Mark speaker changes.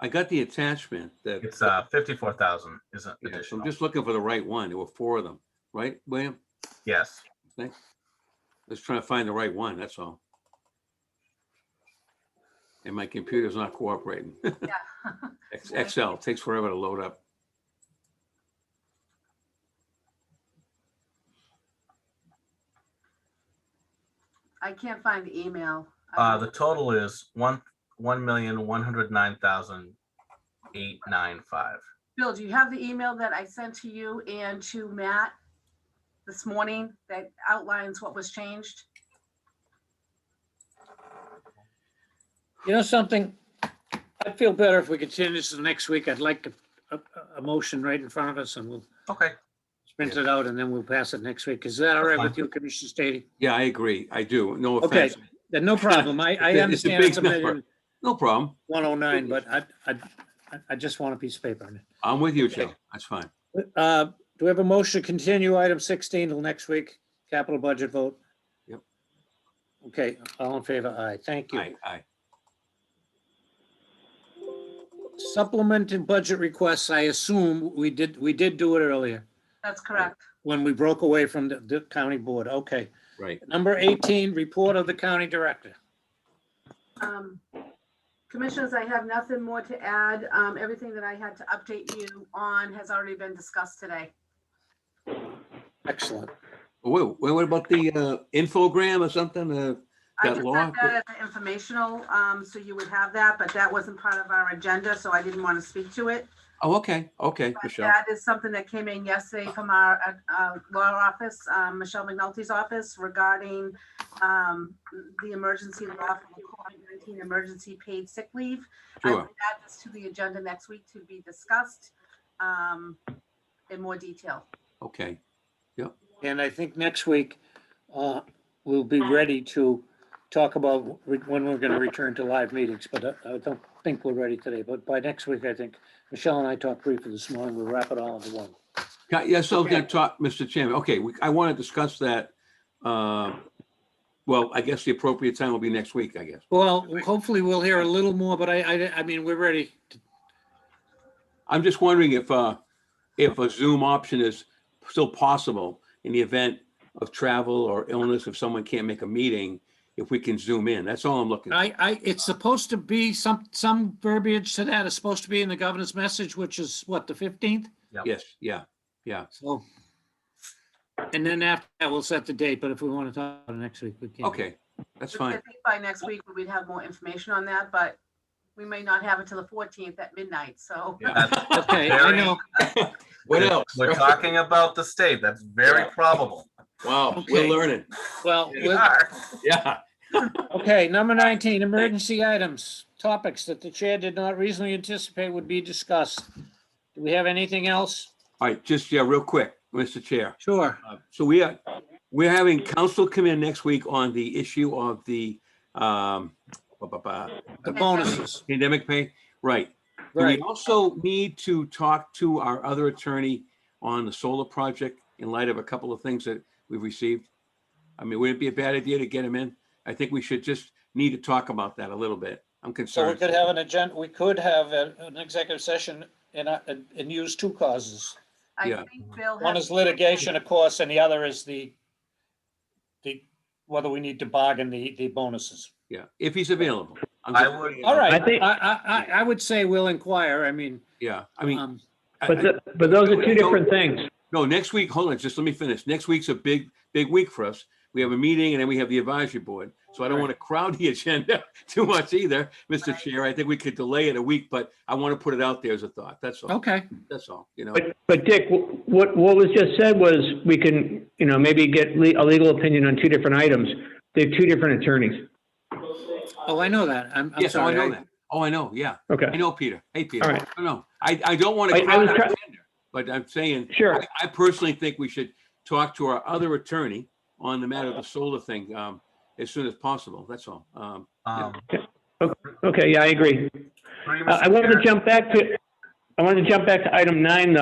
Speaker 1: I got the attachment that,
Speaker 2: It's uh fifty-four thousand is an
Speaker 1: yeah, so I'm
Speaker 2: additional.
Speaker 1: just looking for the right one. There were four of them, right, William?
Speaker 2: Yes,
Speaker 1: Just trying to find the right one, that's all. And my computer's not cooperating.
Speaker 3: Yeah.
Speaker 1: Ex- Excel takes forever to load up.
Speaker 3: I can't find the email. I
Speaker 2: uh, the total is one, one million, one hundred nine thousand eight nine five.
Speaker 3: Bill, do you have the email that I sent to you and to Matt this morning that outlines what was changed?
Speaker 4: You know something? I'd feel better if we continue this to the next week. I'd like a, a- a motion right in front of us and we'll
Speaker 2: Okay,
Speaker 4: print it out and then we'll pass it next week. Is that all right with you, Commissioner Stady?
Speaker 1: Yeah, I agree. I do. No
Speaker 4: Okay.
Speaker 1: offense.
Speaker 4: Then no problem. I, I
Speaker 1: It's a
Speaker 4: understand it's a
Speaker 1: big number.
Speaker 4: million
Speaker 1: No problem.
Speaker 4: one oh nine, but I, I, I- I just want a piece of paper on it.
Speaker 1: I'm with you,
Speaker 4: Okay.
Speaker 1: Joe. That's fine.
Speaker 4: Uh, do we have a motion to continue item sixteen till next week? Capital budget vote?
Speaker 1: Yep.
Speaker 4: Okay, all in favor? Aye. Thank you.
Speaker 1: Aye, aye.
Speaker 4: Supplement and budget requests, I assume we did, we did do it earlier
Speaker 3: That's correct.
Speaker 4: when we broke away from the, the county board. Okay.
Speaker 1: Right.
Speaker 4: Number eighteen, report of the county director.
Speaker 3: Um, Commissioners, I have nothing more to add. Um, Everything that I had to update you on has already been discussed today.
Speaker 4: Excellent.
Speaker 1: Wait, wait, what about the uh, infogram or something? Uh,
Speaker 3: I
Speaker 1: That
Speaker 3: just
Speaker 1: law-
Speaker 3: sent that as an informational, um, so you would have that, but that wasn't part of our agenda, so I didn't want to speak to it.
Speaker 1: Oh, okay, okay,
Speaker 3: But
Speaker 1: Michelle.
Speaker 3: That is something that came in yesterday from our uh, uh, law office, um, Michelle McNulty's office regarding um, the emergency law for the COVID-19 emergency paid sick leave. I will
Speaker 1: Sure.
Speaker 3: add this to the agenda next week to be discussed um, in more detail.
Speaker 1: Okay,
Speaker 4: And I think next week, uh, we'll be ready to talk about re- when we're gonna return to live meetings, but uh, I- I don't think we're ready today, but by next week, I think, Michelle and I talked briefly this morning, we'll wrap it all into one.
Speaker 1: Ca- yeah, so I'm gonna
Speaker 4: Okay.
Speaker 1: talk, Mr. Chairman, okay, we- I want to discuss that. uh, Well, I guess the appropriate time will be next week, I guess.
Speaker 4: Well, hopefully we'll hear a little more, but I, I, I mean, we're ready. to-
Speaker 1: I'm just wondering if, uh, if a Zoom option is still possible in the event of travel or illness, if someone can't make a meeting, if we can zoom in, that's all I'm looking.
Speaker 4: I, I, it's supposed to be some, some verbiage to that is supposed to be in the governor's message, which is what, the fifteenth?
Speaker 1: Yes, yeah, yeah,
Speaker 4: So. And then after that, we'll set the date, but if we want to talk about it next week, we can.
Speaker 1: okay, that's
Speaker 3: Which I
Speaker 1: fine.
Speaker 3: think By next week, we'd have more information on that, but we may not have it till the 14th at midnight, so.
Speaker 4: Okay, I know.
Speaker 1: What else?
Speaker 2: We're talking about the state. That's very
Speaker 1: Yeah.
Speaker 2: probable.
Speaker 1: Wow, we're
Speaker 4: Okay.
Speaker 1: learning,
Speaker 4: Well,
Speaker 2: We
Speaker 4: we'll-
Speaker 2: are.
Speaker 1: yeah.
Speaker 4: okay, number 19, emergency items, topics that the chair did not reasonably anticipate would be discussed. Do we have anything else?
Speaker 1: All right, just, yeah, real quick, Mr. Chair.
Speaker 4: Sure.
Speaker 1: So we are, we're having council come in next week on the issue of the um ba, ba, ba,
Speaker 4: The bonuses,
Speaker 1: pandemic pay. Right. Do we
Speaker 4: right.
Speaker 1: also need to talk to our other attorney on the solar project in light of a couple of things that we've received? I mean, would it be a bad idea to get him in? I think we should just need to talk about that a little bit. I'm
Speaker 4: So we
Speaker 1: concerned.
Speaker 4: could have an agenda, we could have a- an executive session and, uh, and and use two causes.
Speaker 3: I
Speaker 1: Yeah.
Speaker 3: think Bill
Speaker 4: One
Speaker 3: has-
Speaker 4: is litigation, of course, and the other is the, the, whether we need to bargain the, the bonuses.
Speaker 1: Yeah, if he's available. I'm
Speaker 2: I
Speaker 1: just-
Speaker 2: would-
Speaker 4: All right,
Speaker 5: I think-
Speaker 4: I, I, I- I would say we'll inquire, I mean,
Speaker 1: Yeah, I mean,
Speaker 4: um,
Speaker 1: I-
Speaker 5: But,
Speaker 1: I-
Speaker 5: th- but those are two
Speaker 1: So-
Speaker 5: different things.
Speaker 1: No, next week, hold on, just let me finish. Next week's a big, big week for us. We have a meeting and then we have the advisory board. So I don't want to crowd the agenda too much either, Mr.
Speaker 3: Right.
Speaker 1: Chair. I think we could delay it a week, but I want to put it out there as a thought. That's all,
Speaker 4: okay.
Speaker 1: that's all, you know?
Speaker 5: Oh. But, but Dick, wh- what, what was just said was we can, you know, maybe get le- a legal opinion on two different items. They have two different attorneys.
Speaker 4: Oh, I know that, I'm, I'm
Speaker 1: Yes, oh, I
Speaker 4: sorry.
Speaker 1: know that. Oh, I know, yeah. I
Speaker 5: Okay,
Speaker 1: know, Peter. Hey, Peter.
Speaker 5: All right.
Speaker 1: No, no, I, I don't want
Speaker 5: I-
Speaker 1: to
Speaker 5: I
Speaker 1: crowd
Speaker 5: was
Speaker 1: our
Speaker 5: try-
Speaker 1: agenda, but I'm saying,
Speaker 5: sure.
Speaker 1: I- I personally think we should talk to our other attorney on the matter of the solar thing, um, as soon as possible. That's all. Um,
Speaker 2: Um,
Speaker 5: Okay, yeah, I agree.
Speaker 2: three,
Speaker 5: I I
Speaker 2: Mr.
Speaker 5: wanted
Speaker 2: Chair.
Speaker 5: to jump back to, I wanted to jump back to item nine, though.